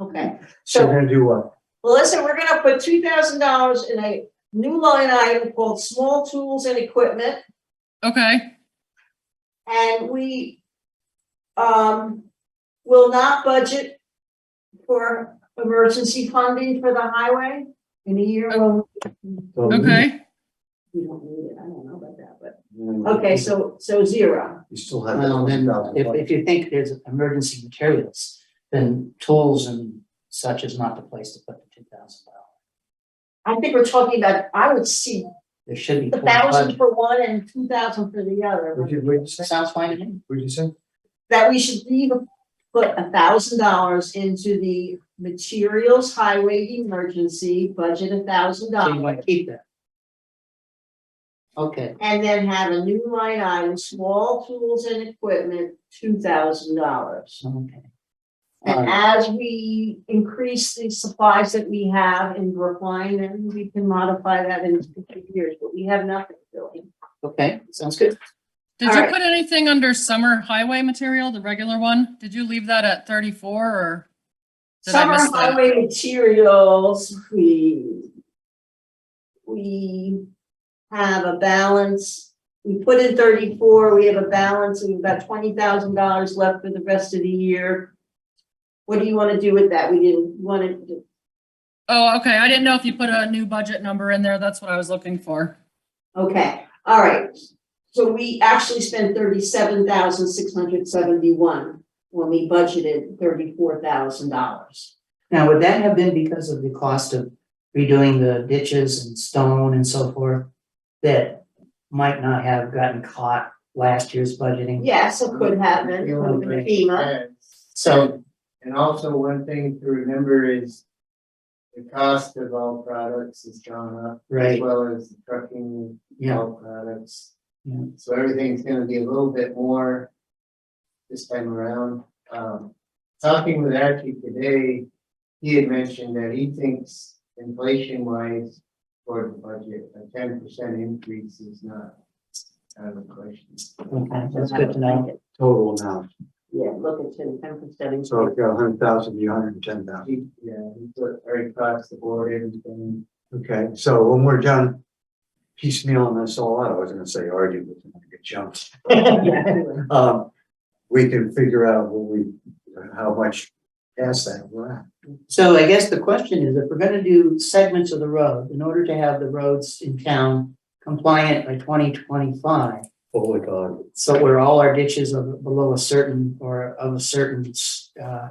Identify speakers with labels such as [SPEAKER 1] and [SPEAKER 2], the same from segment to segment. [SPEAKER 1] Okay,
[SPEAKER 2] So
[SPEAKER 1] so
[SPEAKER 2] we're gonna do what?
[SPEAKER 1] well, listen, we're gonna put two thousand dollars in a new line item called small tools and equipment.
[SPEAKER 3] Okay,
[SPEAKER 1] And we um will not budget for emergency funding for the highway in a year. Well,
[SPEAKER 2] So we-
[SPEAKER 3] okay,
[SPEAKER 1] we don't need it. I don't know about that, but
[SPEAKER 2] Mm,
[SPEAKER 1] okay, so so zero.
[SPEAKER 2] You still have. that
[SPEAKER 4] Well, then, if,
[SPEAKER 2] 12,000.
[SPEAKER 4] if you think there's emergency materials, then tools and such is not the place to put the two thousand dollars.
[SPEAKER 1] I think we're talking about, I would see
[SPEAKER 4] There should be.
[SPEAKER 1] a
[SPEAKER 4] full
[SPEAKER 1] thousand
[SPEAKER 4] budget.
[SPEAKER 1] for one and two thousand for the
[SPEAKER 2] What'd
[SPEAKER 1] other.
[SPEAKER 2] you, what'd you say?
[SPEAKER 4] Sounds fine to me.
[SPEAKER 2] What'd you say?
[SPEAKER 1] That we should leave, put a thousand dollars into the materials highway emergency budget, a thousand
[SPEAKER 4] So
[SPEAKER 1] dollars.
[SPEAKER 4] you want to keep that. Okay,
[SPEAKER 1] And then have a new line item, small tools and equipment, two thousand dollars.
[SPEAKER 4] okay.
[SPEAKER 1] And
[SPEAKER 4] Alright,
[SPEAKER 1] as we increase the supplies that we have in Brookline, then we can modify that in future years, but we have nothing really.
[SPEAKER 4] okay, sounds good.
[SPEAKER 3] did you
[SPEAKER 1] Alright.
[SPEAKER 3] put anything under summer highway material, the regular one? Did you leave that at thirty-four or? Did I
[SPEAKER 1] Summer
[SPEAKER 3] miss that?
[SPEAKER 1] highway materials, we. We have a balance, we put in thirty-four, we have a balance, and we've got twenty thousand dollars left for the rest of the year. What do you wanna do with that? We didn't wanna, do-
[SPEAKER 3] Oh, okay, I didn't know if you put a new budget number in there, that's what I was looking for.
[SPEAKER 1] okay, all right. So we actually spent thirty-seven thousand six hundred seventy-one when we budgeted thirty-four thousand dollars.
[SPEAKER 4] Now, would that have been because of the cost of redoing the ditches and stone and so forth? That might not have gotten caught last year's budgeting?
[SPEAKER 1] Yes, it could happen,
[SPEAKER 5] You
[SPEAKER 1] it
[SPEAKER 5] wanna
[SPEAKER 1] would have been
[SPEAKER 5] break
[SPEAKER 1] FEMA.
[SPEAKER 5] heads.
[SPEAKER 4] Uh, So,
[SPEAKER 5] And also one thing to remember is the cost of all products has gone up as
[SPEAKER 4] right,
[SPEAKER 5] well as the trucking of
[SPEAKER 4] yeah,
[SPEAKER 5] all products.
[SPEAKER 4] Yeah.
[SPEAKER 5] So everything's gonna be a little bit more this time around. Um, talking with Archie today, he had mentioned that he thinks inflation wise for the budget, a ten percent increase is not out of the question.
[SPEAKER 4] okay, that's good to know.
[SPEAKER 2] Total now,
[SPEAKER 1] Yeah, look at ten, ten percent.
[SPEAKER 2] so if you're a hundred thousand, you're hundred and ten thousand.
[SPEAKER 5] He, yeah, he put very across the board, everything.
[SPEAKER 2] Okay, so when we're done piecemealing this all out, I was gonna say argue, but I'm gonna get jumped. Um, we can figure out what we, how much past that we're at.
[SPEAKER 4] So I guess the question is, if we're gonna do segments of the road, in order to have the roads in town compliant by twenty twenty-five,
[SPEAKER 2] Oh my God.
[SPEAKER 4] so where all our ditches are below a certain, or of a certain, uh,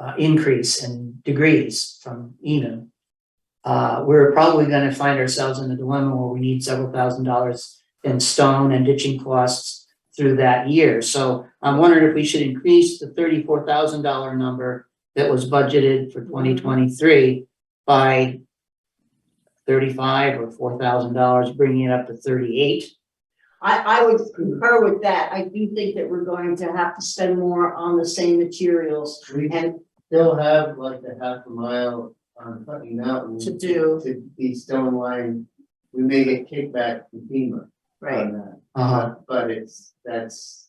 [SPEAKER 4] uh, increase in degrees from Enum, uh, we're probably gonna find ourselves in a dilemma where we need several thousand dollars in stone and ditching costs through that year. So I'm wondering if we should increase the thirty-four thousand dollar number that was budgeted for twenty twenty-three by thirty-five or four thousand dollars, bringing it up to thirty-eight.
[SPEAKER 1] I, I would concur with that. I do think that we're going to have to spend more on the same materials
[SPEAKER 5] We
[SPEAKER 1] and
[SPEAKER 5] still have like a half a mile on Putney Mountain.
[SPEAKER 1] To do.
[SPEAKER 5] To be stone lined, we may get kickback from FEMA
[SPEAKER 1] Right,
[SPEAKER 5] on that,
[SPEAKER 4] Uh,
[SPEAKER 5] but- Uh-huh. but it's, that's.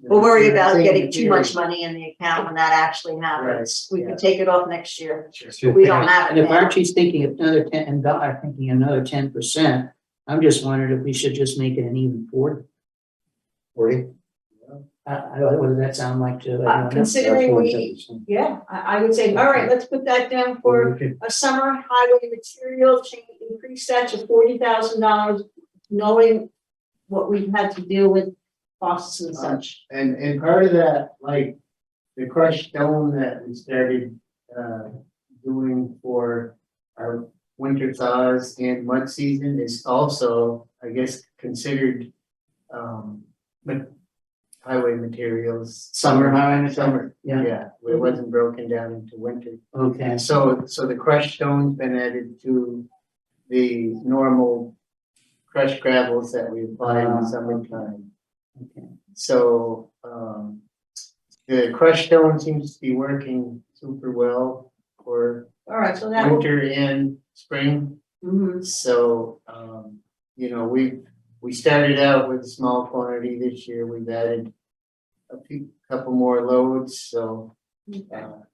[SPEAKER 1] we'll worry about
[SPEAKER 5] Same
[SPEAKER 1] getting too much
[SPEAKER 5] material.
[SPEAKER 1] money in the account when that actually happens.
[SPEAKER 5] Right,
[SPEAKER 1] We
[SPEAKER 5] yeah.
[SPEAKER 1] can take it off next year. We don't have
[SPEAKER 4] and
[SPEAKER 1] it
[SPEAKER 4] if
[SPEAKER 1] now.
[SPEAKER 4] Archie's thinking of another ten, and Doc are thinking another ten percent, I'm just wondering if we should just make it an even forty.
[SPEAKER 2] Forty?
[SPEAKER 4] I, I, what does that sound like to?
[SPEAKER 1] Uh,
[SPEAKER 4] everyone else?
[SPEAKER 1] Considering we, yeah, I, I would say, all right, let's put that down for a summer highway material change, increase that to forty thousand dollars, knowing what we've had to deal with costs and such.
[SPEAKER 5] And, and part of that, like, the crushed stone that we started, uh, doing for our winter thaws and mud season is also, I guess, considered, um, ma- highway materials.
[SPEAKER 4] Summer, highway material.
[SPEAKER 5] Summer,
[SPEAKER 4] Yeah,
[SPEAKER 5] yeah, it wasn't broken down into winter.
[SPEAKER 4] okay,
[SPEAKER 5] And so, so the crushed stone's been added to the normal crushed gravels that we apply in
[SPEAKER 4] Ah,
[SPEAKER 5] the summertime.
[SPEAKER 4] okay.
[SPEAKER 5] So, um, the crushed stone seems to be working super well for
[SPEAKER 1] All right, so that will,
[SPEAKER 5] winter and spring.
[SPEAKER 1] mhm.
[SPEAKER 5] So, um, you know, we, we started out with a small quantity
[SPEAKER 1] mm-hmm.
[SPEAKER 5] this year. We've added a few, couple more loads, so, uh,